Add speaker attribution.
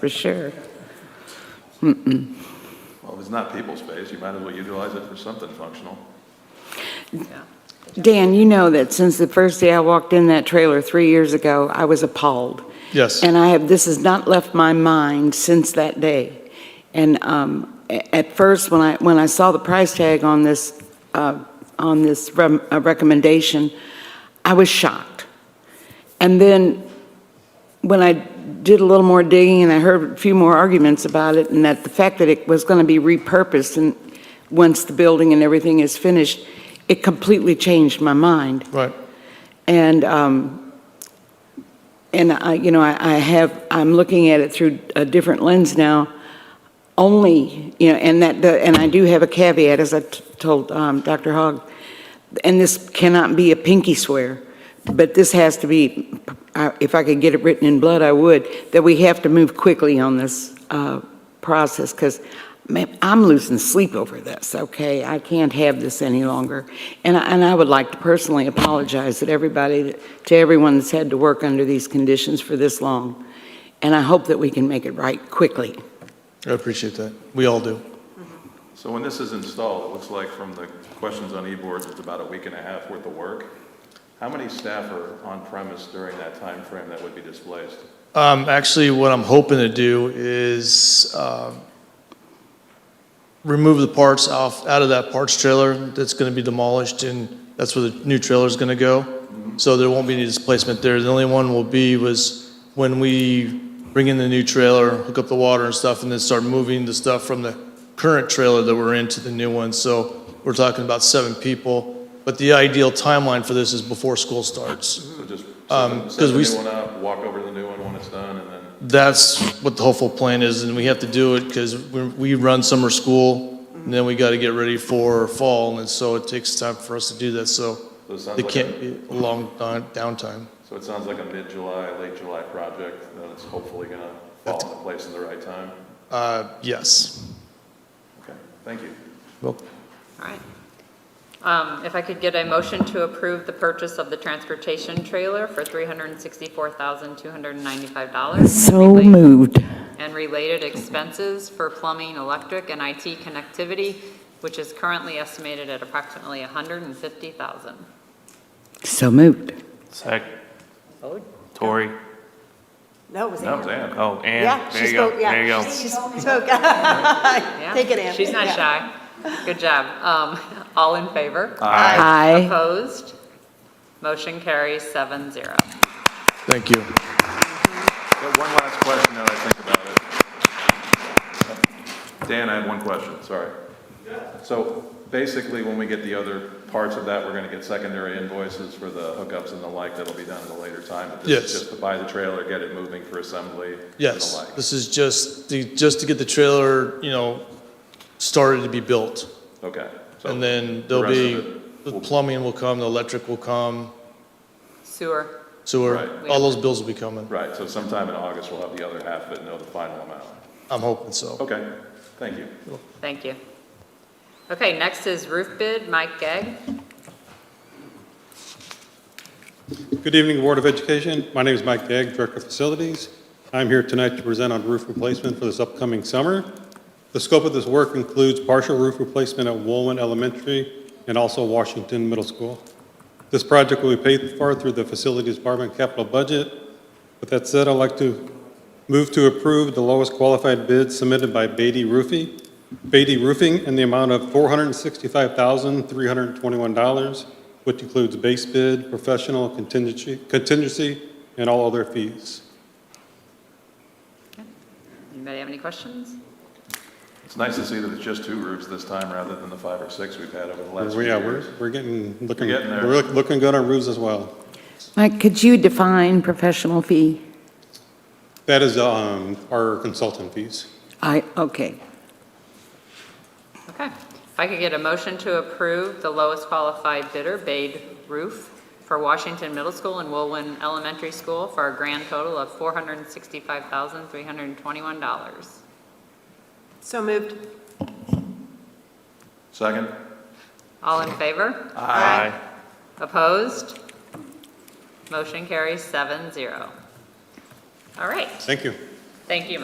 Speaker 1: for sure.
Speaker 2: Well, if it's not people space, you might as well utilize it for something functional.
Speaker 1: Dan, you know that since the first day I walked in that trailer three years ago, I was appalled.
Speaker 3: Yes.
Speaker 1: And I have, this has not left my mind since that day. And um, a- at first, when I, when I saw the price tag on this, uh, on this rem- uh, recommendation, I was shocked. And then, when I did a little more digging and I heard a few more arguments about it, and that the fact that it was going to be repurposed and once the building and everything is finished, it completely changed my mind.
Speaker 3: Right.
Speaker 1: And, um, and I, you know, I, I have, I'm looking at it through a different lens now. Only, you know, and that, the- and I do have a caveat, as I t- told, um, Dr. Hogg, and this cannot be a pinky swear, but this has to be, I- if I could get it written in blood, I would, that we have to move quickly on this, uh, process, because, man, I'm losing sleep over this, okay? I can't have this any longer. And I, and I would like to personally apologize to everybody, to everyone that's had to work under these conditions for this long. And I hope that we can make it right quickly.
Speaker 3: I appreciate that. We all do.
Speaker 2: So when this is installed, it looks like from the questions on e-boards, it's about a week and a half worth of work. How many staff are on premise during that time frame that would be displaced?
Speaker 3: Um, actually, what I'm hoping to do is, um, remove the parts off, out of that parts trailer that's gonna be demolished, and that's where the new trailer's gonna go. So there won't be any displacement there. The only one will be was when we bring in the new trailer, hook up the water and stuff, and then start moving the stuff from the current trailer that we're in to the new one. So we're talking about seven people, but the ideal timeline for this is before school starts.
Speaker 2: So just
Speaker 3: Um,
Speaker 2: set the
Speaker 3: 'cause we
Speaker 2: new
Speaker 3: s-
Speaker 2: one up, walk over to the new one when it's done, and then,
Speaker 3: That's what the hopeful plan is, and we have to do it because we run summer school, and then we got to get ready for fall, and so it takes time for us to do that, so
Speaker 2: so it sounds
Speaker 3: it
Speaker 2: like,
Speaker 3: can't
Speaker 2: a-
Speaker 3: be a long down- downtime.
Speaker 2: so it sounds like a mid-July, late July project, then it's hopefully gonna fall into place in the right time.
Speaker 3: Uh, Yes.
Speaker 2: Okay, thank you.
Speaker 4: All right. Um, If I could get a motion to approve the purchase of the transportation trailer for $364,295.
Speaker 1: So moved.
Speaker 4: And related expenses for plumbing, electric, and IT connectivity, which is currently estimated at approximately $150,000.
Speaker 1: So moved.
Speaker 5: Sec,
Speaker 4: Vote.
Speaker 5: Tori.
Speaker 6: No, it was
Speaker 2: No,
Speaker 6: Ann.
Speaker 2: Dan.
Speaker 5: Oh,
Speaker 6: Yeah,
Speaker 5: and there
Speaker 6: she
Speaker 5: you go,
Speaker 6: spoke, yeah.
Speaker 5: there you go.
Speaker 6: She spoke.
Speaker 4: Yeah.
Speaker 6: Take it, Ann.
Speaker 4: She's not
Speaker 6: Yeah.
Speaker 4: shy. Good job. Um, All in favor?
Speaker 1: Aye.
Speaker 4: Opposed? Motion carries seven zero.
Speaker 3: Thank you.
Speaker 2: Got one last question now that I think about it. Dan, I have one question, sorry. So basically, when we get the other parts of that, we're gonna get secondary invoices for the hookups and the like, that'll be done at a later time. But this is
Speaker 3: Yes.
Speaker 2: Just to buy the trailer, get it moving for assembly and the
Speaker 3: Yes,
Speaker 2: like.
Speaker 3: this is just, the- just to get the trailer, you know, started to be built.
Speaker 2: Okay. so
Speaker 3: And then
Speaker 2: the
Speaker 3: there'll
Speaker 2: rest
Speaker 3: be,
Speaker 2: of it
Speaker 3: the
Speaker 2: will-
Speaker 3: plumbing will come, the electric will come,
Speaker 4: Sewer.
Speaker 3: sewer,
Speaker 2: Right.
Speaker 3: all those bills will be coming.
Speaker 2: Right, so sometime in August, we'll have the other half of it, know the final amount.
Speaker 3: I'm hoping so.
Speaker 2: Okay, thank you.
Speaker 4: Thank you. Okay, next is roof bid, Mike Gagg.
Speaker 7: Good evening, Board of Education. My name is Mike Gagg, Director of Facilities. I'm here tonight to present on roof replacement for this upcoming summer. The scope of this work includes partial roof replacement at Woolman Elementary and also Washington Middle School. This project will be paid for through the Facilities Department capital budget. With that said, I'd like to move to approve the lowest qualified bid submitted by Beatty Roofing, Beatty Roofing in the amount of $465,321, which includes base bid, professional contingency, contingency, and all other fees.
Speaker 4: Anybody have any questions?
Speaker 2: It's nice to see that it's just two roofs this time, rather than the five or six we've had over the last few
Speaker 7: Yeah, we're,
Speaker 2: years.
Speaker 7: we're getting, looking,
Speaker 2: We're getting there.
Speaker 7: we're look- looking good on roofs as well.
Speaker 1: Mike, could you define professional fee?
Speaker 7: That is um, our consultant fees.
Speaker 1: I, okay.
Speaker 4: Okay. If I could get a motion to approve the lowest qualified bidder, Bade Roof, for Washington Middle School and Woolwin Elementary School for a grand total of $465,321.
Speaker 6: So moved.
Speaker 2: Second?
Speaker 4: All in favor?
Speaker 2: Aye.
Speaker 4: Opposed? Motion carries seven zero. All right.
Speaker 7: Thank you.
Speaker 4: Thank you,